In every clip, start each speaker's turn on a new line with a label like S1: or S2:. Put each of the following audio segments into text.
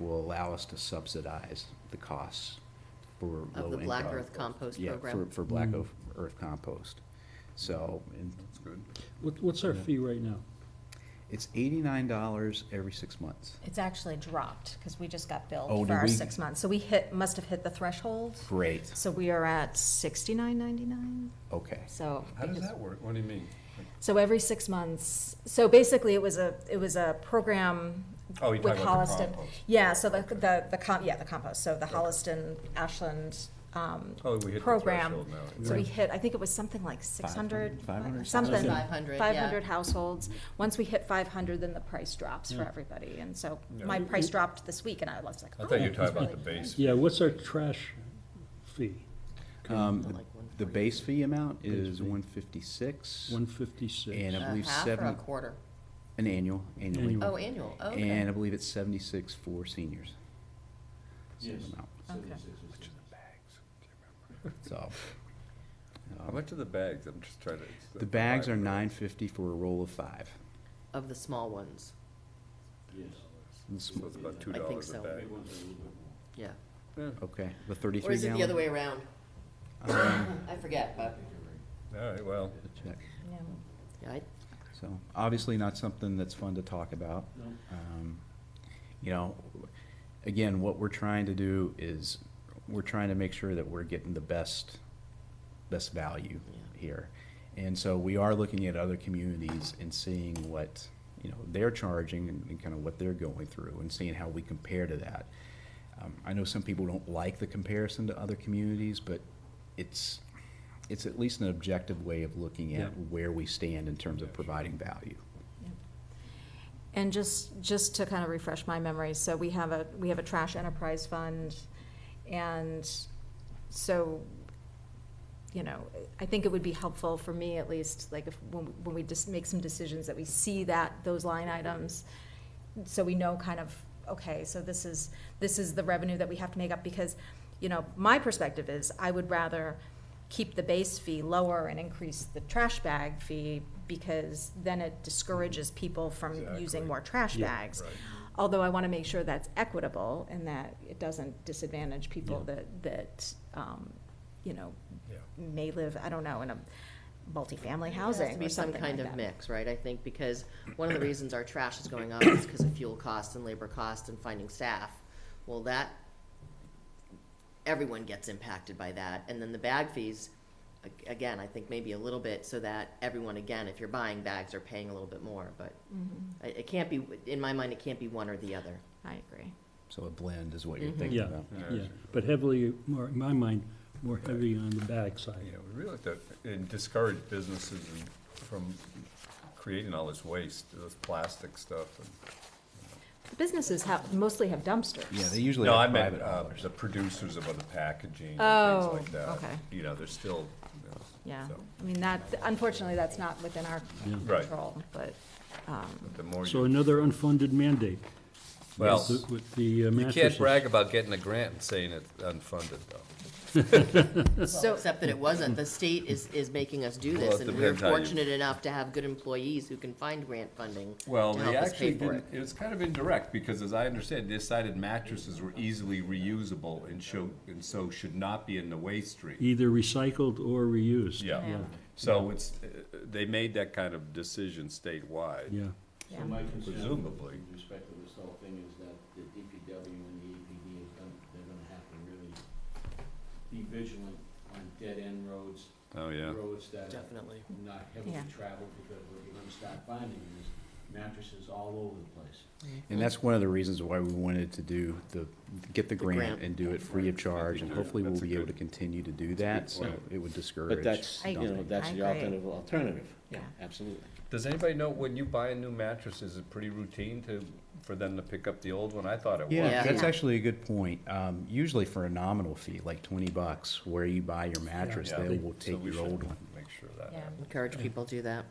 S1: will allow us to subsidize the costs for low
S2: Of the Black Earth Compost
S1: Yeah,
S2: Program.
S1: for, for Black Oaf- Earth Compost. So, and
S3: That's good.
S4: What, what's our fee right now?
S1: it's eighty-nine dollars every six months.
S5: It's actually dropped, because we just got
S1: Oh,
S5: billed
S1: did
S5: for our
S1: we?
S5: six months. So we hit, must have hit the threshold.
S1: Great,
S5: So we are at sixty-nine ninety-nine,
S1: okay.
S5: so.
S3: How does
S5: because-
S3: that work? What do you mean? Like-
S5: So every six months, so basically it was a, it was a program
S3: Oh,
S5: with
S3: you're talking about the
S5: Holliston.
S3: compost.
S5: Yeah, so the, the, the com, yeah, the compost, so the Holliston, Ashland, um,
S3: Oh, we hit the
S5: program.
S3: threshold now.
S5: So we
S4: Right.
S5: hit, I think it was something like six hundred,
S1: 500,
S5: something.
S2: 500, yeah.
S5: 500 households. Once we hit five hundred, then the price drops for
S4: Yeah.
S5: everybody. And so
S3: Yeah.
S5: my price dropped this week and I was like,
S3: I
S5: oh.
S3: thought you were talking
S5: that's
S3: about the
S5: really
S3: base.
S4: Yeah, what's our trash fee?
S1: Um,
S2: Like
S1: the-
S2: one
S1: the
S2: forty.
S1: base fee amount is
S4: Base fee.
S1: one fifty-six,
S4: One fifty-six.
S1: And I
S2: A
S1: believe
S2: Uh, half or a
S1: seven-
S2: quarter?
S1: an annual, annually.
S4: Annual.
S2: Oh, annual, oh, okay.
S1: And I believe it's seventy-six for seniors. Same amount. So,
S3: How much are the bags? I'm just trying to. it's
S1: the bags are
S3: five.
S1: nine fifty for a roll of five.
S2: Of the small ones,
S1: It's-
S3: So it's about two
S2: I think
S3: dollars a
S2: so.
S3: bag.
S2: yeah.
S1: Okay, the
S2: Or
S1: thirty-three
S2: is it the other
S1: gallon?
S2: way around?
S1: Um,
S2: I forget, but,
S3: All right, well,
S1: Check.
S5: Yeah.
S2: yeah, I,
S1: So, obviously not something that's fun to talk about. Um, You know, again, what we're trying to do is, we're trying to make sure that we're getting the best, best value
S2: Yeah.
S1: here. And so we are looking at other communities and seeing what, you know, they're charging and and kind of what they're going through and seeing how we compare to that. Um, I know some people don't like the comparison to other communities, but it's, it's at least an objective way of looking at
S4: Yeah.
S1: where we stand in terms of providing value.
S5: And just, just to kind of refresh my memory, so we have a, we have a trash enterprise fund, and so, you know, I think it would be helpful for me at least, like if, when, when we just make some decisions, that we see that, those line items, so we know kind of, okay, so this is, this is the revenue that we have to make up, because, you know, my perspective is, I would rather keep the base fee lower and increase the trash bag fee, because then it discourages people from
S3: Exactly.
S5: using more trash
S4: Yeah.
S5: bags.
S3: right.
S5: Although I want to make sure that's equitable and that it doesn't disadvantage people
S4: Yeah.
S5: that, that, um, you know,
S3: Yeah.
S5: may live, I don't know, in a multifamily
S2: It has to
S5: housing
S2: be
S5: or
S2: some
S5: something like
S2: kind
S5: that.
S2: of mix, right, I think, because one of the reasons our trash is going up is because of fuel costs and labor costs and finding staff. Well, that, everyone gets impacted by that, and then the bag fees, a- again, I think maybe a little bit, so that everyone, again, if you're buying bags, are paying a little bit more, but
S5: Mhm.
S2: it, it can't be, in my mind, it can't be one or the other.
S5: I agree.
S1: So a blend is what you're
S2: Mhm.
S1: thinking
S4: Yeah.
S1: about.
S4: Yeah, but heavily, more, in my mind, more heavy on the bag
S3: Yeah,
S4: side.
S3: we really have to and discourage businesses and- from creating all this waste, this plastic stuff. and-
S5: The Businesses have, mostly have dumpsters.
S1: Yeah, they usually
S3: No, I
S1: have
S3: meant
S1: private
S3: uh,
S1: haulers.
S3: the producers of other packaging and
S5: Oh,
S3: things like that.
S5: okay.
S3: You know, they're still, you know,
S5: Yeah,
S3: so,
S5: I mean, that, unfortunately, that's not within our
S4: Yeah.
S3: Right.
S5: control, but,
S3: but the more
S4: So
S3: you,
S4: another unfunded mandate.
S3: well,
S4: With the- With the uh,
S3: you
S4: mattresses.
S3: can't brag about getting a grant and saying it's unfunded, though.
S2: So, except that it wasn't, the state is, is making us do
S3: Well,
S2: this,
S3: it
S2: and we we're
S3: depends how you-
S2: fortunate enough to have good employees who can find grant funding to
S3: Well, they
S2: help us
S3: actually
S2: pay for
S3: didn't,
S2: it.
S3: it was kind of indirect, because as I understand, they decided mattresses were easily reusable and show, and so should not be in the waste stream.
S4: Either recycled or reused.
S3: Yeah, so it's, uh, they made that kind of decision statewide.
S4: Yeah,
S5: yeah.
S6: My concern
S3: Presumably.
S6: with respect to this whole thing is that the DPW and the EPD is gonna, they're gonna have to really be vigilant on dead-end roads,
S3: Oh, yeah.
S6: roads that are
S2: Definitely.
S6: not heavily
S5: Yeah.
S6: traveled, because what you're gonna start finding is mattresses all over the place.
S1: And that's one of the reasons why we wanted to do the, get the grant
S2: grant.
S1: and do it free of charge, and hopefully we'll
S3: That's a
S1: be able to
S3: good-
S1: continue to do that, so
S3: point.
S1: it would discourage.
S7: But that's, you know,
S1: dumping.
S7: that's
S5: I
S7: the
S5: agree.
S7: alternative, alternative, yeah,
S5: Yeah.
S7: absolutely.
S3: Does anybody know, when you buy a new mattress, is it pretty routine to, for them to pick up the old one? I thought it was.
S1: Yeah,
S2: Yeah.
S1: that's
S5: Yeah.
S1: actually a good point. Um, usually for a nominal fee, like twenty bucks, where you buy your mattress,
S3: Yeah.
S1: they will
S3: So
S1: take
S3: we
S1: your
S3: should
S1: old one.
S3: Make sure that
S5: Yeah.
S3: happens.
S2: Encourage people to do that.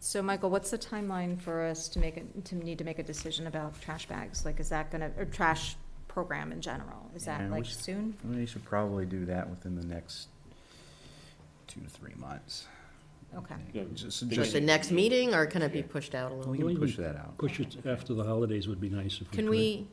S5: So, Michael, what's the timeline for us to make, a- to need to make a decision about trash bags? Like, is that gonna, or trash program in general? Is
S1: Yeah,
S5: that
S1: we
S5: like
S1: should-
S5: soon?
S1: We should probably do that within the next two to three months.
S5: Okay.
S7: Yeah,
S1: Just,
S2: Like
S1: just,
S2: the next meeting, or can it be
S1: Yeah.
S2: pushed out a little?
S1: we can push that out.
S4: push it after the holidays would be nice if we could.
S2: Can we,